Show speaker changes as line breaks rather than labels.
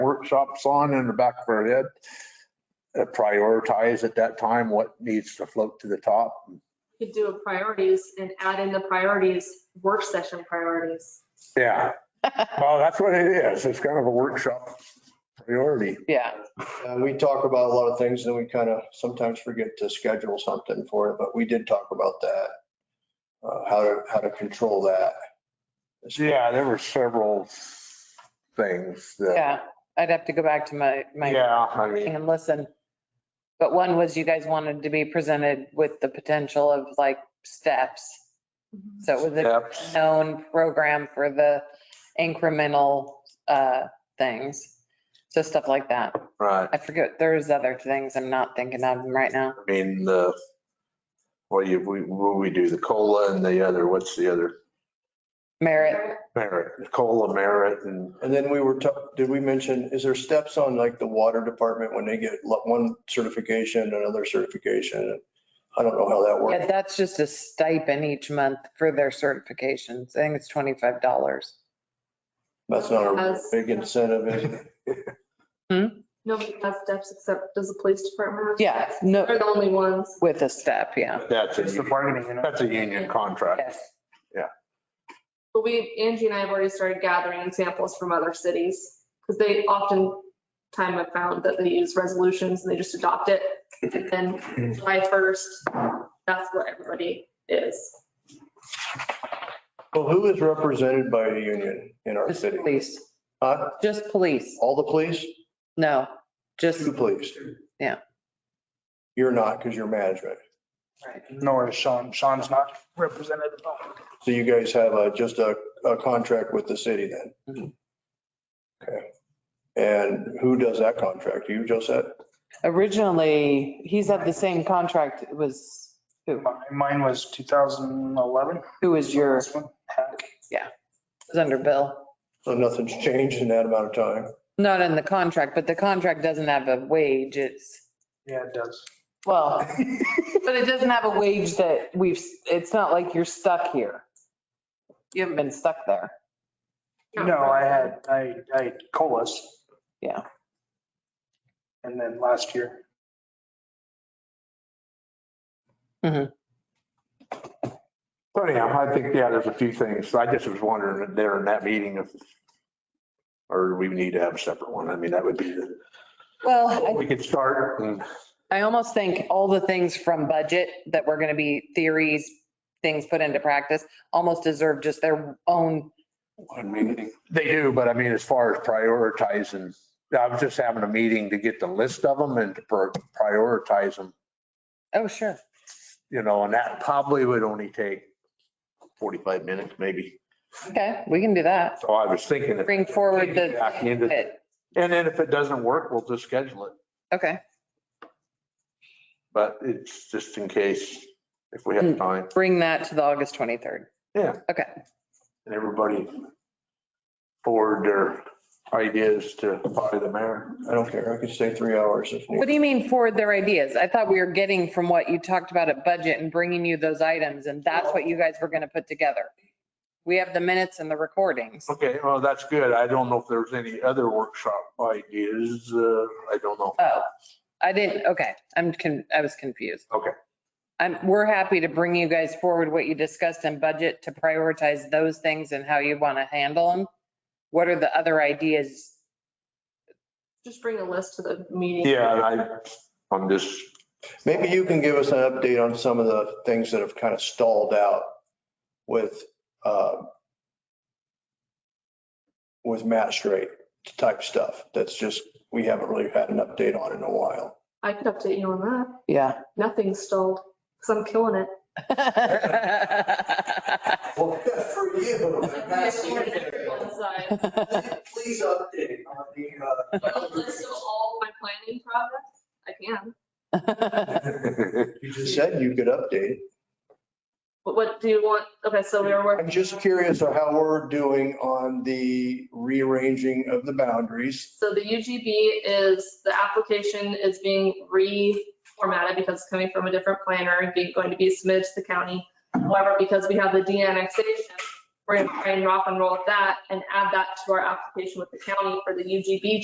workshops on in the back of our head. uh, Prioritize at that time what needs to float to the top.
Could do a priorities and add in the priorities, work session priorities.
Yeah. Well, that's what it is. It's kind of a workshop priority.
Yeah,
Uh, We talk about a lot of things and we kind of sometimes forget to schedule something for it, but we did talk about that. uh, How to, how to control that.
Yeah, there were several things that,
yeah. I'd have to go back to my, my
yeah, I mean,
and listen. But one was you guys wanted to be presented with the potential of like steps. So it was a
steps.
known program for the incremental uh, things. So stuff like that.
Right.
I forget, there's other things I'm not thinking of them right now.
I mean, the, well, you, we, what we do, the COLA and the other, what's the other?
Merit,
Merit, COLA merit and,
And then we were, ta- did we mention, is there steps on like the water department when they get lo- one certification, another certification? I don't know how that
yeah,
works.
that's just a stipend each month for their certifications. I think it's $25.
That's not a
As-
big incentive. is it?
Nobody has steps except, does the police department? have
Yeah,
steps?
no,
They're the only ones.
with a step, yeah.
that's a,
It's the
union-
bargaining unit.
that's a union contract.
Yes.
But we, Angie and I have already started gathering examples from other cities because they often time have found that they use resolutions and they just adopt it. And then July 1st, that's where everybody is.
Well, who is represented by a union in our
Just
city?
police,
Huh?
just police.
All the police?
No, just,
Two police?
Yeah.
You're not because you're management.
Nor is Sean. Sean's not represented. at all.
So you guys have a, just a, a contract with the city then?
Mhm.
Okay. And who does that contract? You, Josette?
originally, he's had the same contract. It was, who,
My- Mine was 2011.
who was your, it
This one, heck.
was under Bill.
So nothing's changed in that amount of time?
Not in the contract, but the contract doesn't have a wage. It's,
Yeah, it does.
well, but it doesn't have a wage that we've, it's not like you're stuck here. You haven't been stuck there.
No, I had, I, I had colas.
Yeah.
And then last year.
So anyhow, I think, yeah, there's a few things. I just was wondering there in that meeting if, or we need to have a separate one. I mean, that would be, the-
Well,
we could start and,
I almost think all the things from budget that were going to be theories, things put into practice, almost deserve just their own
I mean, they do, but I mean, as far as prioritizing, I was just having a meeting to get the list of them and to pro- prioritize them,
Oh, sure.
you know, and that probably would only take 45 minutes maybe.
Okay, we can do that.
So I was thinking. if-
Bring forward the.
Back into- And then if it doesn't work, we'll just schedule it.
Okay,
But it's just in case if we have
Mm.
time
bring that to the August 23rd.
and everybody forward their ideas to by the mayor.
I don't care. I could stay three hours if
What
needed.
do you mean forward their ideas? I thought we were getting from what you talked about at budget and bringing you those items and that's what you guys were going to put together. We have the minutes and the recordings.
Okay, well, that's good. I don't know if there's any other workshop ideas. Uh, I don't know.
Oh, I didn't, okay, I'm, con- I was confused.
Okay.
I'm, we're happy to bring you guys forward what you discussed in budget to prioritize those things and how you want to handle them. What are the other ideas?
Just bring a list to the meeting.
Yeah, I, I'm just,
Maybe you can give us an update on some of the things that have kind of stalled out with, uh, with match rate type stuff. That's just, we haven't really had an update on in a while.
I could update you on that.
Yeah.
Nothing's stalled because I'm killing it.
Well, good for you. That's wonderful.
Side.
Please update on the,
A list of oh, all my planning projects. I can.
You just said you could update.
But what do you want? Okay, so we were working.
I'm just curious of how we're doing on the rearranging of the boundaries.
So the UGB is, the application is being reformatted because it's coming from a different planner and being, going to be submitted to the county. However, because we have the de-annexation, we're going to try and rock and roll with that and add that to our application with the county for the UGB